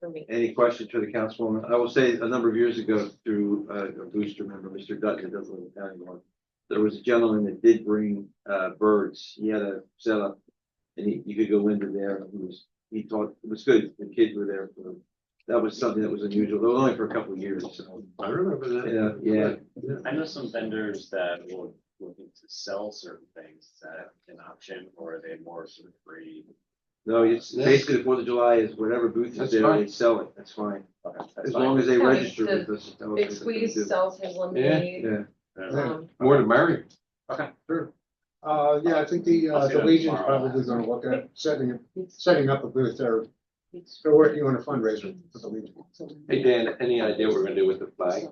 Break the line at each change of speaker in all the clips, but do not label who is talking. For me.
Any questions for the councilwoman? I will say a number of years ago through uh, a booster member, Mr. Dutton, who doesn't live in town anymore. There was a gentleman that did bring uh, birds. He had a setup and he, you could go into there. and He was, he taught, it was good. The kids were there. for That was something that was unusual, though only for a couple of years. So,
I remember that.
Yeah, yeah.
I know some vendors that will looking to sell certain things Is that an option or are they more sort of free?
no, it's basically the Fourth of July is whatever booth is
That's
there, they
fine.
sell it. That's fine.
Okay, that's
As
fine.
long as they
Yeah, like
register
the
with us. that was
Big
what they
Squeeze
do.
sells his lemonade.
Yeah.
Uh,
Um,
More to marry.
Okay.
Sure. Uh, yeah, I think the,
I'll
uh,
see
the
them
Legion's
tomorrow.
probably gonna look at setting, setting up a booth there. They're working on a fundraiser for the Legion.
Hey, Dan, any idea what we're gonna do with the flag?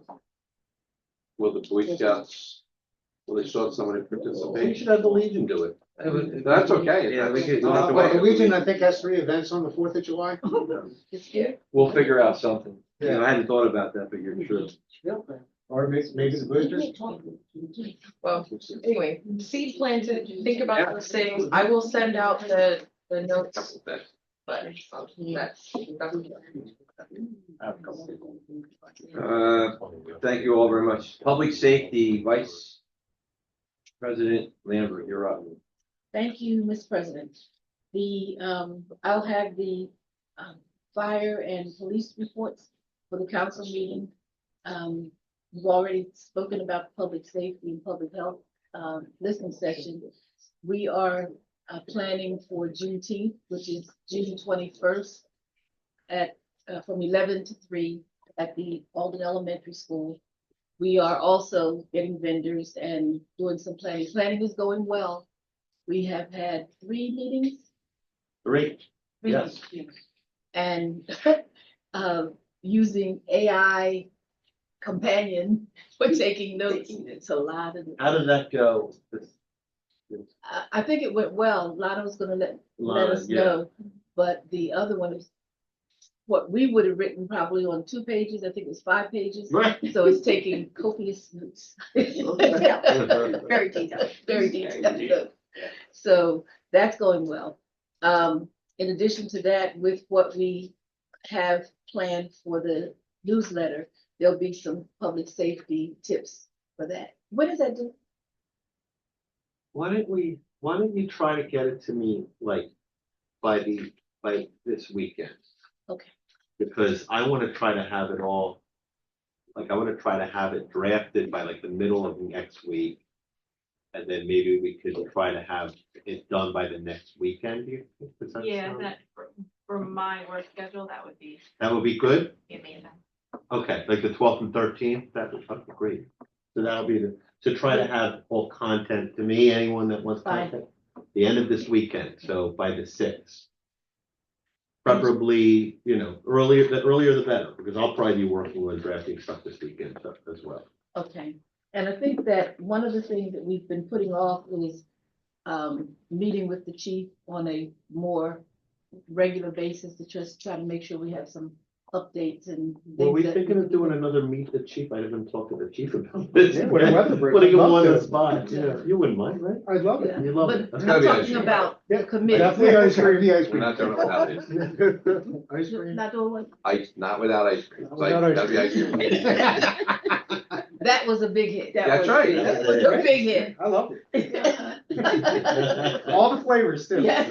Will the Boy Scouts, will they show somebody participate? You should have the Legion do it. That's okay.
Yeah, we could-
Uh, well, the Legion, I think, has three events on the Fourth of July.
We'll figure out something.
You know, I hadn't thought about that, but you're true.
Or may- maybe the boosters.
Well, anyway, seed planted, think about those things. I will send out the, the notes. But um, that's, that's.
I have a couple people.
Uh, Thank you all very much. Public Safety Vice President Lambert, you're up.
Thank you, Ms. President. The, um, I'll have the, um, fire and police reports for the council meeting. Um, you've already spoken about public safety and public health, um, listening session. We are, uh, planning for Juneteenth, which is June twenty-first at, uh, from eleven to three at the Alden Elementary School. We are also getting vendors and doing some planning. Planning is going well. We have had three meetings.
Great.
three
Yes.
meetings, And um, using AI companion for taking notes. It's a lot of,
How did that go?
I, I think it went well. Lotto's gonna let, let us know. But the other one is what we would have written probably on two pages. I think it was five pages.
Right.
So it's taking copious notes.
Very detailed.
very detailed. notes. So that's going well. Um, in addition to that, with what we have planned for the newsletter, there'll be some public safety tips for that. What does that do?
Why don't we, why don't you try to get it to me like by the, by this weekend?
Okay.
Because I wanna try to have it all, like, I wanna try to have it drafted by like the middle of next week. And then maybe we could try to have it done by the next weekend. do you think? Does that
Yeah,
sound-
that, for- for my work schedule, that would be
That would be good?
amazing.
Okay, like the twelfth and thirteenth, that would fucking great. So that'll be the, to try to have all content to me, anyone that wants
Fine.
content. The end of this weekend, so by the sixth. Preferably, you know, earlier, the earlier the better, because I'll probably be working on drafting stuff this weekend stuff as well.
Okay, and I think that one of the things that we've been putting off is um, meeting with the chief on a more regular basis to just try to make sure we have some updates and.
Were we
things that-
thinking of doing another meet the chief? I haven't talked to the chief about this.
Yeah, when the weather breaks,
Putting him
I'd love
on the
to.
spot, yeah, you wouldn't mind, right?
I'd love it.
Yeah,
You love it.
But
That's
I'm
gotta be an
talking
issue.
about the committee.
Definitely ice cream, the ice
We're not doing it without ice cream.
cream. Ice cream.
Not doing what-
Ice, not without ice cream. It's like,
Without ice
gotta be ice cream.
That was a big hit. That
That's
was-
right.
That was a big hit.
I love it.
Right,
All the flavors too.
Yeah.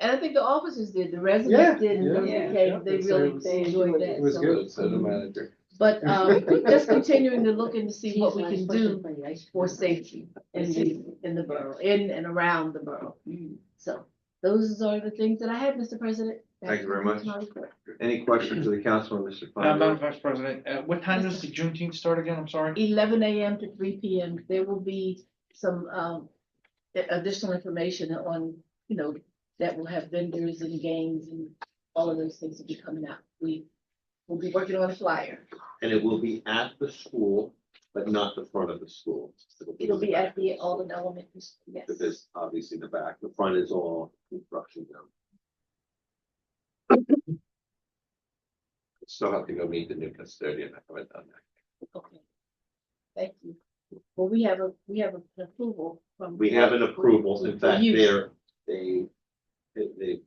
It
And I think the officers did, the
Yeah,
residents did, and
yeah,
they came,
yeah.
they
So it
really
was-
they enjoyed that.
was
so-
good.
So the manager.
But um, just continuing to look and see what we can do for safety in the, in the borough, in and around the borough. So those are the things that I have, Mr. President.
Thank you very much.
That's my report.
Any questions for the councilman, Mr.
Uh, Madam
Feinberg?
Vice President, uh, what time does the Juneteenth start again? I'm sorry.
Eleven AM to three PM, there will be some um a- additional information on, you know, that will have vendors and games and all of those things will be coming out. We will be working on a flyer.
And it will be at the school, but not the front of the school.
It'll be at the Alden Elementary, School, yes.
Because there's obviously the back, the front is all construction down.
Still have to go meet the new custodian. I haven't done that.
Okay. Thank you. Well, we have a, we have an approval from.
We have an approval, in fact,
Use.
they're, they, they- they